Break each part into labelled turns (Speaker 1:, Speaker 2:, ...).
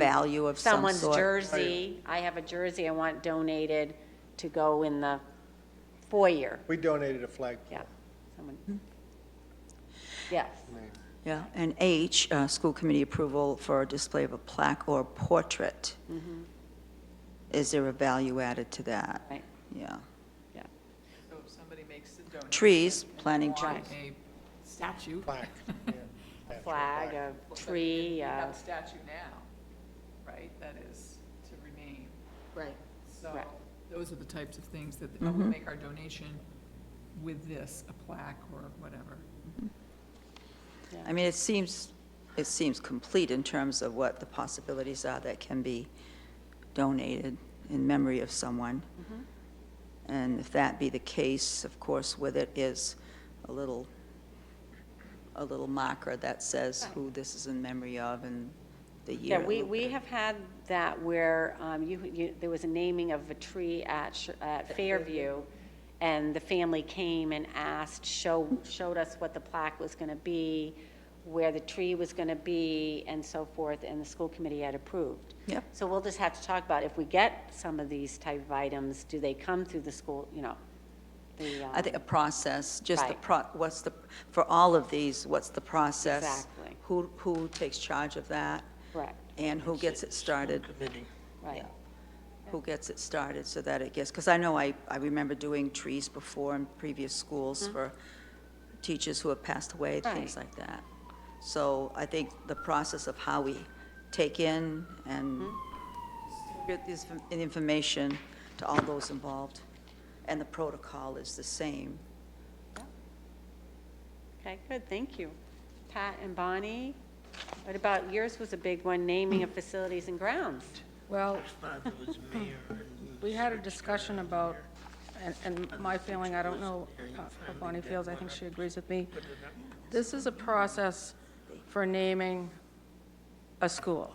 Speaker 1: value of some
Speaker 2: someone's
Speaker 1: sort.
Speaker 2: jersey, I have a jersey I want donated to go in the foyer,
Speaker 3: We donated a flagpole.
Speaker 2: yeah,
Speaker 1: Hmm.
Speaker 2: someone. Yes,
Speaker 1: Yeah, and H, uh, school committee approval for display of a plaque or portrait.
Speaker 2: Mm-hmm.
Speaker 1: Is there a value added to that?
Speaker 2: right,
Speaker 1: Yeah.
Speaker 2: yeah,
Speaker 4: So if somebody makes a donation.
Speaker 1: Trees, planting
Speaker 4: or
Speaker 1: trees.
Speaker 4: A statue.
Speaker 3: Plaque. yeah. That's a
Speaker 2: flag,
Speaker 3: plaque.
Speaker 2: a tree,
Speaker 4: We have
Speaker 2: uh,
Speaker 4: a statue now, right, that is to remain.
Speaker 5: Right.
Speaker 4: So
Speaker 2: Right.
Speaker 4: those are the types of things that, oh, we'll make our donation with this, a plaque or whatever.
Speaker 1: I mean, it seems, it seems complete in terms of what the possibilities are that can be donated in memory of someone.
Speaker 2: Mm-hmm.
Speaker 1: And if that be the case, of course, with it is a little, a little marker that says who this is in memory of and the year.
Speaker 2: yeah,
Speaker 1: it
Speaker 2: we,
Speaker 1: was.
Speaker 2: we have had that where, um, you, you, there was a naming of a tree at, Sh- at Fairview, and the family came and asked, show, showed us what the plaque was gonna be, where the tree was gonna be, and so forth, and the school committee had approved.
Speaker 1: Yep.
Speaker 2: So we'll just have to talk about if we get some of these type of items, do they come through the school, you know? the,
Speaker 1: I think a
Speaker 2: um,
Speaker 1: process, just the
Speaker 2: Right.
Speaker 1: pro, what's the, for all of these, what's the process?
Speaker 2: Exactly.
Speaker 1: Who, who takes charge of that
Speaker 2: Correct,
Speaker 1: and who gets it started?
Speaker 2: right,
Speaker 1: who gets it started so that it gets, because I know I, I remember doing trees before in previous schools for teachers who have passed away, things
Speaker 2: Mm-hmm. Right.
Speaker 1: like that. So I think the process of how we take in and
Speaker 2: Mm-hmm.
Speaker 1: get this in- information to all those involved, and the protocol is the same.
Speaker 2: okay, good, thank you. Pat and Bonnie, what about, yours was a big one, naming of facilities and grounds.
Speaker 5: Well, we had a discussion about, and, and my feeling, I don't know uh, how Bonnie feels, I think she agrees with me. This is a process for naming a school.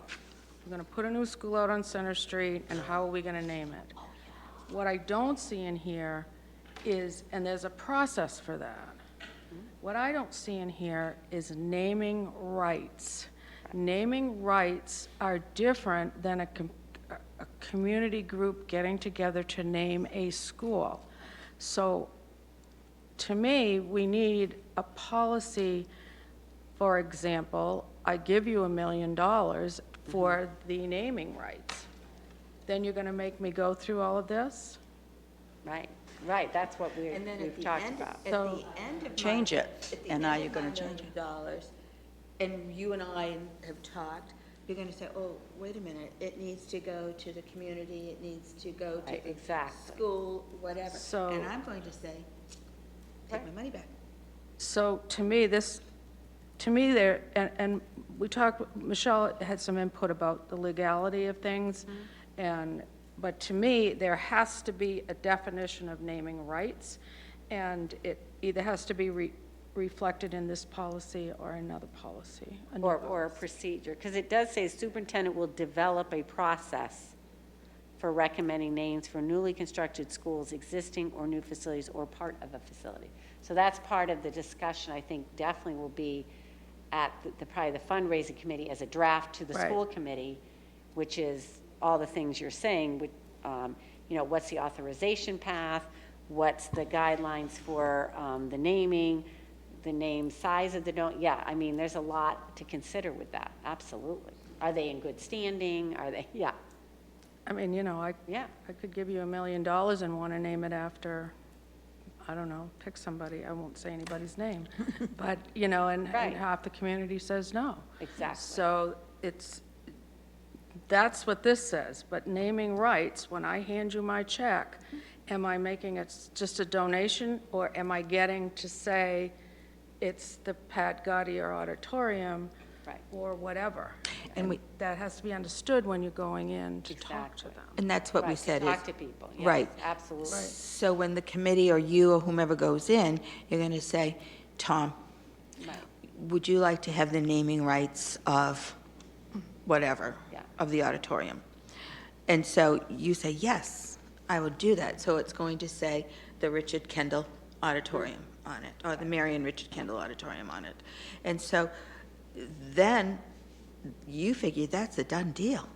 Speaker 5: We're gonna put a new school out on Center Street, and how are we gonna name it? What I don't see in here is, and there's a process for that. What I don't see in here is naming rights. Naming rights are different than a, com- a a community group getting together to name a school. So, to me, we need a policy, for example, I give you a million dollars for the naming rights. Then you're gonna make me go through all of this?
Speaker 2: Right, right, that's what we,
Speaker 6: And then at
Speaker 2: we've
Speaker 6: the
Speaker 2: talked
Speaker 6: end,
Speaker 2: about.
Speaker 6: at the
Speaker 5: So-
Speaker 6: end of.
Speaker 1: Change
Speaker 6: my-
Speaker 1: it,
Speaker 6: at the
Speaker 1: and
Speaker 6: end
Speaker 1: now you're
Speaker 6: of
Speaker 1: gonna
Speaker 6: my
Speaker 1: change
Speaker 6: million
Speaker 1: it.
Speaker 6: Dollars, and you and I have talked, you're gonna say, oh, wait a minute, it needs to go to the community, it needs to go to.
Speaker 2: Right,
Speaker 6: the
Speaker 2: exactly.
Speaker 6: School, whatever.
Speaker 5: So-
Speaker 6: And I'm going to say, take my money back.
Speaker 5: So to me, this, to me there, and, and we talked, Michelle had some input about the legality of things. And, but to me, there has to be a definition of naming rights. And it either has to be re- reflected in this policy or another policy.
Speaker 2: Or,
Speaker 5: another
Speaker 2: or a procedure, because it does say superintendent will develop a process for recommending names for newly constructed schools, existing or new facilities, or part of a facility. So that's part of the discussion, I think definitely will be at the- the, probably the fundraising committee as a draft to the
Speaker 5: Right.
Speaker 2: school committee, which is all the things you're saying, with, um, you know, what's the authorization path? What's the guidelines for, um, the naming, the name, size of the don't, yeah, I mean, there's a lot to consider with that, absolutely. Are they in good standing? Are they, yeah,
Speaker 5: I mean, you know, I,
Speaker 2: yeah.
Speaker 5: I could give you a million dollars and want to name it after, I don't know, pick somebody, I won't say anybody's name. But, you know, and,
Speaker 2: Right.
Speaker 5: and half the community says no.
Speaker 2: Exactly.
Speaker 5: So it's, that's what this says, but naming rights, when I hand you my check, am I making it s- just a donation? Or am I getting to say it's the Pat Gaudier Auditorium?
Speaker 2: Right.
Speaker 5: Or whatever.
Speaker 1: And we-
Speaker 5: That has to be understood when you're going in to talk to
Speaker 2: Exactly.
Speaker 5: them.
Speaker 7: And that's what we
Speaker 2: Right, to
Speaker 7: said is,
Speaker 2: Talk to people, yes,
Speaker 7: Right.
Speaker 2: absolutely.
Speaker 7: so when the committee or you or whomever goes in, you're going to say, Tom,
Speaker 2: Right.
Speaker 7: would you like to have the naming rights of whatever,
Speaker 2: Yeah.
Speaker 7: of the auditorium? And so you say, yes, I will do that. So it's going to say the Richard Kendall Auditorium on it, or the Marion Richard Kendall Auditorium on it. And so then you figure that's a done deal.